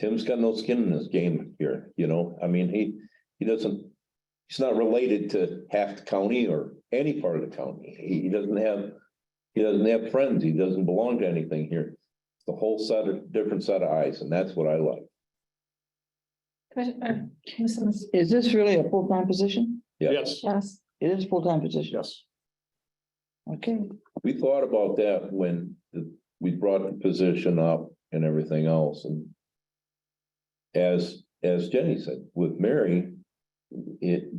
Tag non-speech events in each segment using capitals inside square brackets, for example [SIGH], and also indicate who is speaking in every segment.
Speaker 1: Tim's got no skin in this game here, you know, I mean, he, he doesn't. He's not related to half the county or any part of the county. He, he doesn't have. He doesn't have friends. He doesn't belong to anything here. It's a whole set of, different set of eyes, and that's what I like.
Speaker 2: Commissioner, Mrs.
Speaker 3: Is this really a full-time position?
Speaker 4: Yes,
Speaker 2: Yes.
Speaker 3: It is a full-time position.
Speaker 4: yes.
Speaker 3: Okay,
Speaker 1: We thought about that when the- we brought the position up and everything else and. As, as Jenny said, with Mary, it,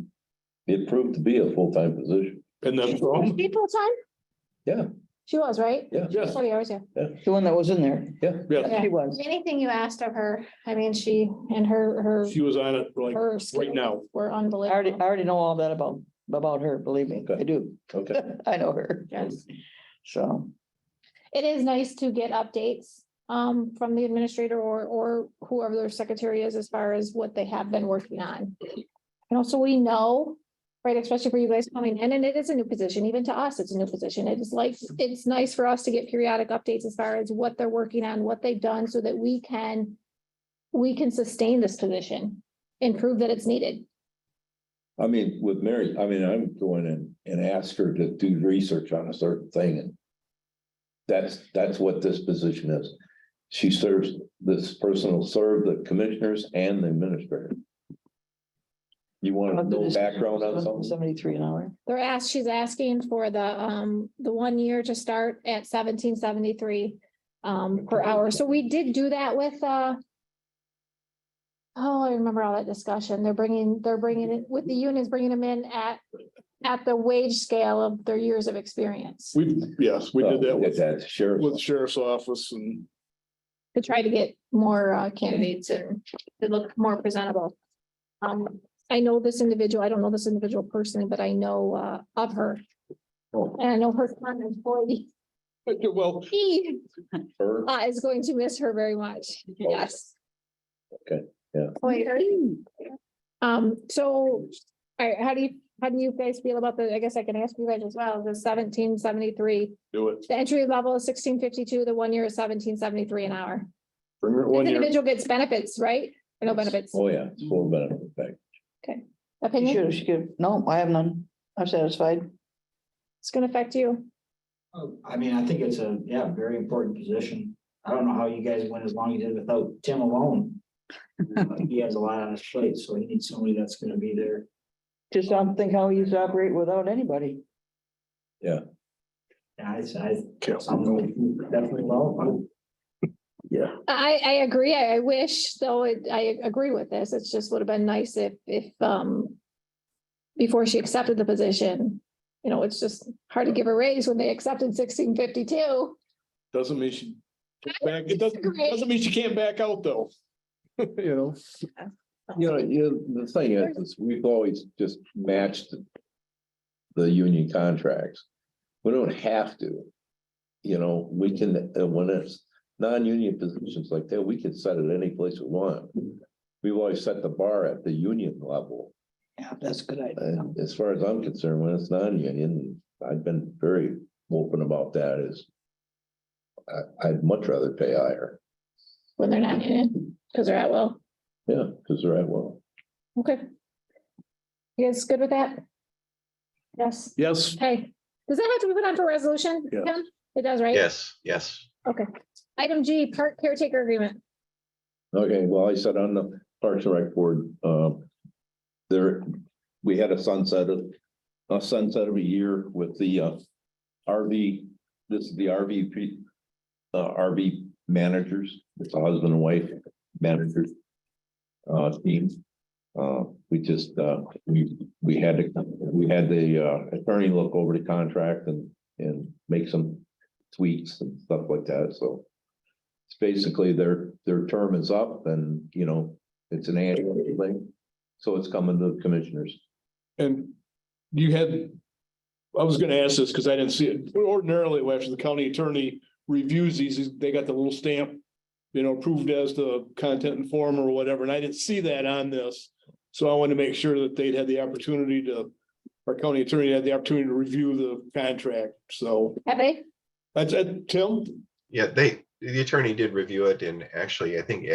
Speaker 1: it proved to be a full-time position.
Speaker 4: And then, from-
Speaker 2: People time?
Speaker 1: Yeah.
Speaker 2: She was, right?
Speaker 1: Yeah,
Speaker 4: yes,
Speaker 2: Forty hours, yeah.
Speaker 3: the one that was in there,
Speaker 4: yes.
Speaker 3: she was.
Speaker 2: Anything you asked of her, I mean, she and her, her,
Speaker 4: She was on it like
Speaker 2: her.
Speaker 4: right now.
Speaker 2: Were
Speaker 3: I already, I
Speaker 2: unbelievable.
Speaker 3: already know all that about, about her, believe me, I do. [LAUGHS]
Speaker 1: okay.
Speaker 3: I know her.
Speaker 2: Yes.
Speaker 3: So,
Speaker 2: It is nice to get updates um from the administrator or or whoever their secretary is as far as what they have been working on. You know, so we know, right, especially for you guys coming in, and it is a new position, even to us, it's a new position. It is like, it's nice for us to get periodic updates as far as what they're working on, what they've done, so that we can we can sustain this position and prove that it's needed.
Speaker 1: I mean, with Mary, I mean, I'm going and, and ask her to do research on a certain thing and. That's, that's what this position is. She serves, this person will serve the commissioners and the administrator. You want to know background on something?
Speaker 3: Seventy-three an hour.
Speaker 2: They're asked, she's asking for the, um, the one year to start at seventeen seventy-three, um, per hour. So we did do that with, uh, oh, I remember all that discussion. They're bringing, they're bringing it, with the unions, bringing them in at, at the wage scale of their years of experience
Speaker 4: We, yes, we did
Speaker 1: Oh,
Speaker 4: that with,
Speaker 1: That's sheriff's
Speaker 4: with sheriff's office and
Speaker 2: to try to get more, uh, candidates and to look more presentable. Um, I know this individual, I don't know this individual personally, but I know, uh, of her.
Speaker 1: Oh.
Speaker 2: And I know her current [LAUGHS] employee.
Speaker 4: well,
Speaker 1: officer.
Speaker 2: uh, is going to miss her very much. Yes.
Speaker 1: Okay, yeah.
Speaker 2: Um, so, all right, how do you, how do you guys feel about the, I guess I can ask you guys as well, the seventeen seventy-three?
Speaker 4: do it.
Speaker 2: The entry level is sixteen fifty-two, the one year is seventeen seventy-three an hour.
Speaker 4: Bring her at
Speaker 2: This
Speaker 4: one year.
Speaker 2: individual gets benefits, right? Or No benefits,
Speaker 1: Oh, yeah, it's full benefit package.
Speaker 3: She
Speaker 2: opinion,
Speaker 3: should, she could, no, I have none. I'm satisfied.
Speaker 2: it's gonna affect you.
Speaker 5: Oh, I mean, I think it's a, yeah, very important position. I don't know how you guys went as long as you did without Tim alone. Uh, He has a lot on his plate, so he needs somebody that's gonna be there.
Speaker 3: Just don't think how he used to operate without anybody.
Speaker 5: And I, I,
Speaker 4: Okay.
Speaker 5: I'm going definitely well. I'm-
Speaker 2: I, I agree. I I wish, though, it- I agree with this. It's just would have been nice if, if, um, before she accepted the position, you know, it's just hard to give a raise when they accepted sixteen fifty-two.
Speaker 4: Doesn't mean she. Back, it doesn't,
Speaker 2: disagree.
Speaker 4: doesn't mean she can't back out though. You know,
Speaker 1: You know, you, the thing is, is we've always just matched the union contracts. We don't have to. You know, we can, uh, when it's non-union positions like that, we can set it any place we want. We've always set the bar at the union level.
Speaker 3: Yeah, that's a good idea.
Speaker 1: And as far as I'm concerned, when it's non-union, I've been very open about that is I, I'd much rather pay higher.
Speaker 2: When they're not in it, because they're at will.
Speaker 1: Yeah, because they're at will.
Speaker 2: Okay. You guys good with that? Yes.
Speaker 4: yes,
Speaker 2: Okay. Does that have to be put on for resolution?
Speaker 4: Yeah.
Speaker 2: Tim? It does, right?
Speaker 6: Yes, yes.
Speaker 2: Item G, park caretaker agreement.
Speaker 1: Okay, well, I said on the Parks and Rec Board, um, there, we had a sunset of, a sunset of a year with the, uh, RV, this is the RV, pe- uh, RV managers, it's a husband and wife managers, uh, team. Uh, we just, uh, we, we had, to- we had the, uh, attorney look over the contract and, and make some tweaks and stuff like that, so it's basically their, their term is up and, you know, it's an annual thing. So it's coming to the commissioners.
Speaker 4: and you had. I was gonna ask this because I didn't see it. Ordinarily, after the county attorney reviews these, they got the little stamp. You know, approved as the content and form or whatever, and I didn't see that on this. So I wanted to make sure that they'd had the opportunity to. Our county attorney had the opportunity to review the contract, so
Speaker 2: Have they?
Speaker 4: that's it, Tim?
Speaker 6: Yeah, they, the attorney did review it and actually, I think